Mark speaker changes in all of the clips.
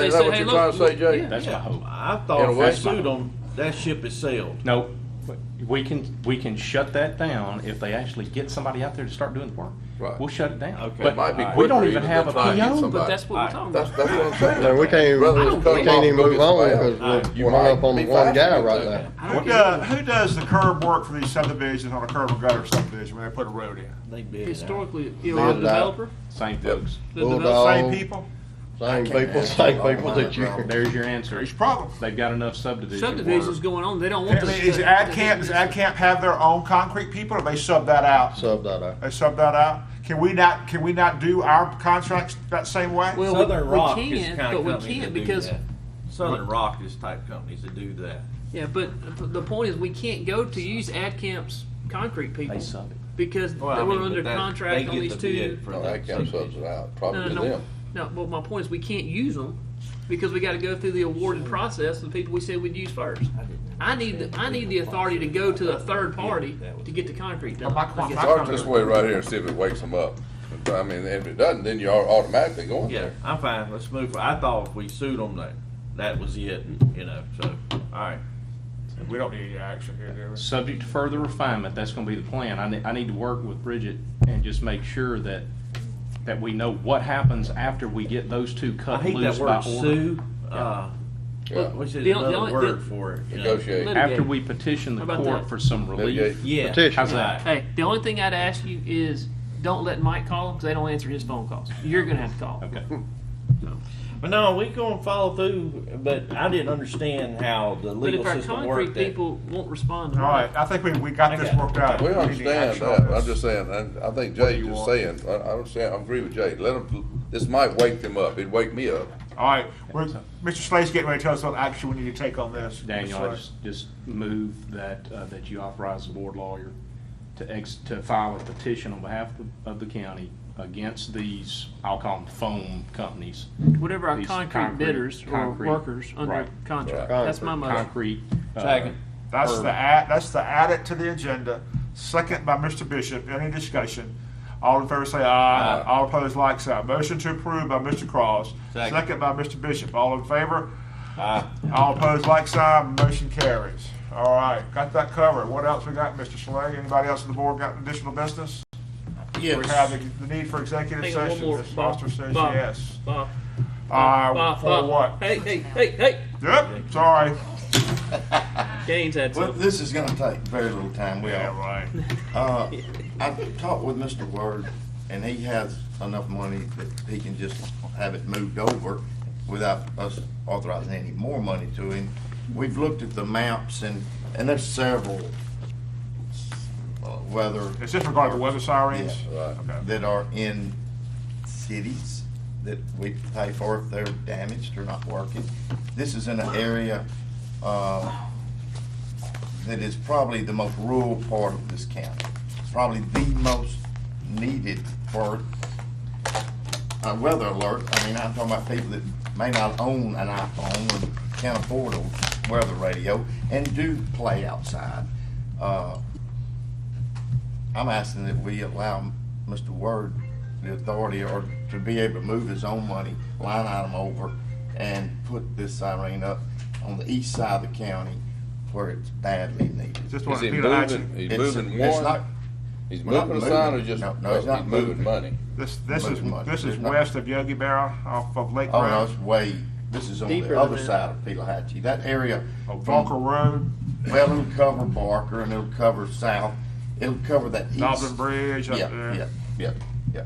Speaker 1: They
Speaker 2: Is
Speaker 1: said,
Speaker 2: that what
Speaker 1: "Hey,
Speaker 2: you're
Speaker 1: look,
Speaker 2: trying to say,
Speaker 1: look,
Speaker 2: Jay?
Speaker 1: yeah."
Speaker 3: That's my hope.
Speaker 4: I
Speaker 2: In a
Speaker 4: thought if
Speaker 2: way.
Speaker 4: they sued them, that ship is sailed.
Speaker 3: No, but we can, we can shut that down if they actually get somebody out there to start doing the work.
Speaker 2: Right.
Speaker 3: We'll shut it down.
Speaker 4: Okay.
Speaker 3: But
Speaker 2: It might be
Speaker 3: We don't
Speaker 2: quicker than
Speaker 3: even have a
Speaker 2: trying to get
Speaker 3: PO.
Speaker 2: somebody.
Speaker 3: but-
Speaker 1: That's what we're talking
Speaker 2: That's,
Speaker 1: about.
Speaker 2: that's what I'm saying.
Speaker 5: No, we can't,
Speaker 2: Rather than
Speaker 5: we
Speaker 2: cut them
Speaker 5: can't
Speaker 2: off,
Speaker 5: even
Speaker 2: go
Speaker 5: move
Speaker 2: get
Speaker 5: on with
Speaker 2: somebody
Speaker 5: it,
Speaker 2: else.
Speaker 5: we're-
Speaker 2: You
Speaker 5: we're not
Speaker 2: might
Speaker 5: up on
Speaker 2: be
Speaker 5: one
Speaker 2: faster
Speaker 5: guy
Speaker 2: than
Speaker 5: right
Speaker 2: that.
Speaker 5: now.
Speaker 1: I
Speaker 6: What
Speaker 1: don't
Speaker 6: does,
Speaker 1: get
Speaker 6: who does the curb work for these subdivisions on a curb and gutter subdivision when they put a road in?
Speaker 4: They
Speaker 1: it.
Speaker 4: bid it out.
Speaker 1: Historically, you
Speaker 5: Build
Speaker 1: know, the
Speaker 5: that.
Speaker 1: developer,
Speaker 3: Same folks.
Speaker 1: the
Speaker 5: Bulldog.
Speaker 1: developer,
Speaker 6: Same
Speaker 5: Oh.
Speaker 6: people?
Speaker 5: Same people, same people that you,
Speaker 3: There's your answer.
Speaker 6: There's your problem.
Speaker 3: They've got enough subdivision. work.
Speaker 1: subdivisions going on, they don't want
Speaker 6: I mean,
Speaker 1: this.
Speaker 6: Is Ad Camp, does Ad Camp have their own concrete people or they sub that out?
Speaker 5: sub that out.
Speaker 6: They sub that out? Can we not, can we not do our contracts that same way?
Speaker 1: Well, we-
Speaker 4: Southern Rock
Speaker 1: we
Speaker 4: is
Speaker 1: can,
Speaker 4: the kind
Speaker 1: but
Speaker 4: of
Speaker 1: we
Speaker 4: company
Speaker 1: can't
Speaker 4: that do
Speaker 1: because
Speaker 4: that. Southern Rock is type companies that do that.
Speaker 1: yeah, but the point is we can't go to use AdCamp's concrete people
Speaker 3: They sub it.
Speaker 1: because
Speaker 4: Well, I
Speaker 1: they were
Speaker 4: mean, but
Speaker 1: under
Speaker 4: that- they
Speaker 1: contract on
Speaker 4: get
Speaker 1: these
Speaker 4: the
Speaker 1: two.
Speaker 4: bid for
Speaker 2: No,
Speaker 4: that
Speaker 2: that can't
Speaker 4: subdivision.
Speaker 2: subs it out,
Speaker 1: No,
Speaker 2: probably to
Speaker 1: no, no.
Speaker 2: them.
Speaker 1: No, well, my point is, we can't use them because we gotta go through the awarded process, the people we said we'd use first. I need, the I need the authority to go to a third party to get the concrete done.
Speaker 6: Well, my-
Speaker 1: I guess.
Speaker 2: Start this way right here and see if it wakes them up. I mean, if it doesn't, then you're automatically going
Speaker 4: Yeah,
Speaker 2: there.
Speaker 4: I'm fine, let's move, for- I thought if we sued them, that, that was it, you know, so, alright.
Speaker 6: We don't need any action here, do we?
Speaker 3: Subject to further refinement, that's gonna be the plan. I need, I need to work with Bridget and just make sure that, that we know what happens after we get those two
Speaker 4: I
Speaker 3: cut
Speaker 4: hate that
Speaker 3: loose by
Speaker 4: word
Speaker 3: order.
Speaker 4: sue, uh,
Speaker 2: Yeah.
Speaker 4: which is
Speaker 1: The only- the
Speaker 4: another
Speaker 1: only-
Speaker 4: word
Speaker 1: the-
Speaker 4: for it. you know.
Speaker 2: Negotiate.
Speaker 1: Let-
Speaker 3: After we petition
Speaker 1: How
Speaker 3: the
Speaker 1: about that?
Speaker 3: court for some relief.
Speaker 2: Litigate.
Speaker 4: Yeah.
Speaker 5: Petition.
Speaker 3: How's that?
Speaker 1: Hey, the only thing I'd ask you is, don't let Mike call them, cause they don't answer his phone calls. You're gonna have to call.
Speaker 3: Okay.
Speaker 4: But no, we gonna follow through, but I didn't understand how the
Speaker 1: But
Speaker 4: legal
Speaker 1: if our
Speaker 4: system worked
Speaker 1: concrete
Speaker 4: that.
Speaker 1: people won't respond. to
Speaker 6: All right, I think we, we got this worked out.
Speaker 2: We
Speaker 6: need
Speaker 2: understand
Speaker 6: action on
Speaker 2: that, I'm
Speaker 6: this.
Speaker 2: just saying, and I think
Speaker 6: What do
Speaker 2: Jay
Speaker 6: you
Speaker 2: just
Speaker 6: want?
Speaker 2: saying, I, I understand, I agree with Jay, let them, this might wake them up, it'd wake me up.
Speaker 6: All right, we're, Mr. Slade's getting ready to tell us what action we need to take on this.
Speaker 3: Daniel,
Speaker 6: Mr.
Speaker 3: I
Speaker 6: Slade.
Speaker 3: just, just move that, uh, that you authorize the board lawyer to ex, to file a petition on behalf of, the- of the county against these, I'll call them foam companies,
Speaker 1: Whatever our
Speaker 3: These
Speaker 1: concrete
Speaker 3: concrete-
Speaker 1: bidders or
Speaker 3: concrete,
Speaker 1: workers under
Speaker 3: right,
Speaker 1: contract,
Speaker 5: right.
Speaker 1: that's my motion.
Speaker 3: concrete. uh,
Speaker 4: Second.
Speaker 6: That's
Speaker 3: Or-
Speaker 6: the add, that's the add it to the agenda, second by Mr. Bishop, any discussion? All in favor say aye, all opposed like sign, motion to approve by Mr. Cross,
Speaker 4: Second.
Speaker 6: second by Mr. Bishop, all in favor? All opposed like sign, motion carries. All right, got that covered, what else we got, Mr. Slade, anybody else on the board got additional business?
Speaker 1: Yes.
Speaker 6: We have the- the need for executive
Speaker 1: Hang on, one
Speaker 6: session,
Speaker 1: more.
Speaker 6: Mr.
Speaker 1: Bob,
Speaker 6: Foster says
Speaker 1: Bob.
Speaker 6: yes.
Speaker 1: Bob,
Speaker 6: Uh,
Speaker 1: Bob,
Speaker 6: for
Speaker 1: Bob.
Speaker 6: what?
Speaker 1: Hey, hey, hey, hey,
Speaker 6: Yep, sorry.
Speaker 1: Gaines had
Speaker 7: Well,
Speaker 1: something.
Speaker 7: this is gonna take very little time, we
Speaker 6: Yeah,
Speaker 7: all.
Speaker 6: right.
Speaker 7: Uh, I've talked with Mr. Word, and he has enough money that he can just have it moved over without us authorizing any more money to him. We've looked at the maps and, and there's several uh, weather
Speaker 6: Is this regarding the weather sirens?
Speaker 7: Yeah,
Speaker 2: right.
Speaker 6: Okay.
Speaker 7: that are in cities that we pay for if they're damaged or not working. This is in an area, uh, that is probably the most rural part of this county. Probably the most needed for a weather alert. I mean, I'm talking about people that may not own an iPhone and can't afford a weather radio and do play outside. Uh, I'm asking that we allow Mr. Word the authority or to be able to move his own money line item over and put this siren up on the east side of the county where it's badly
Speaker 6: Is
Speaker 7: needed.
Speaker 6: this one
Speaker 2: Is he
Speaker 6: Peter
Speaker 2: moving,
Speaker 6: Action?
Speaker 2: he's
Speaker 7: It's-
Speaker 2: moving
Speaker 7: it's not-
Speaker 2: one, he's
Speaker 7: we're not
Speaker 2: moving a sign or
Speaker 7: moving.
Speaker 2: just,
Speaker 7: No, no,
Speaker 2: no,
Speaker 7: it's not
Speaker 2: he's moving
Speaker 7: moving.
Speaker 2: money?
Speaker 6: This, this is,
Speaker 7: Moving money.
Speaker 6: this is
Speaker 7: It's not-
Speaker 6: west of Yogi Berra off of Lake
Speaker 7: Oh, no, it's
Speaker 6: Road,
Speaker 7: way, this is on
Speaker 1: Deeper
Speaker 7: the other
Speaker 1: than that.
Speaker 7: side of Pelahatchie. That area.
Speaker 2: Oh,
Speaker 6: of
Speaker 7: from-
Speaker 6: Volker Road,
Speaker 7: Well, it'll cover Barker and it'll cover South. It'll cover that east.
Speaker 6: Dublin Bridge up
Speaker 7: Yeah, yeah,
Speaker 6: there.
Speaker 7: yeah, yeah.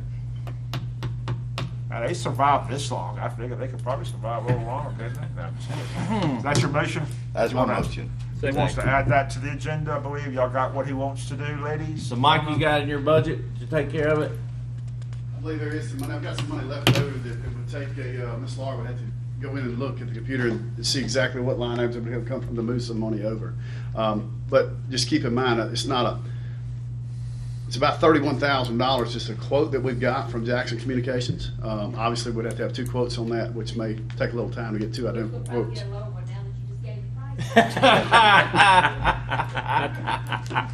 Speaker 6: Now, they survived this long. I figure they could probably survive a little longer, couldn't they? No, I'm just
Speaker 7: Hmm.
Speaker 6: kidding. Is that your motion?
Speaker 7: That's
Speaker 6: You
Speaker 7: my
Speaker 6: wanna-
Speaker 7: motion.
Speaker 6: He wants to add that to the agenda, I believe. Y'all got what he wants to do, ladies?
Speaker 4: So Mike, you got in your budget to take care of it?
Speaker 8: I believe there is some money, I've got some money left over that it would take a, uh, Ms. Laura would have to go in and look at the computer and see exactly what line items would have come from to move some money over. Um, but just keep in mind, uh, it's not a, it's about thirty-one thousand dollars, just a quote that we've got from Jackson Communications. Um, obviously, we'd have to have two quotes on that, which may take a little time to get two identical
Speaker 9: We'll probably
Speaker 8: quotes.
Speaker 9: get a lower one now that you just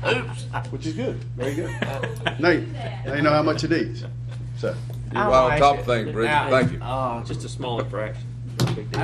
Speaker 9: gave the price.
Speaker 4: Oops.
Speaker 8: Which is good, very good. Now, you- now you know how much it is, so.
Speaker 2: You're right on top of things, Bridget, thank you.
Speaker 1: Ah,
Speaker 4: Oh, just a small infraction.
Speaker 1: big deal.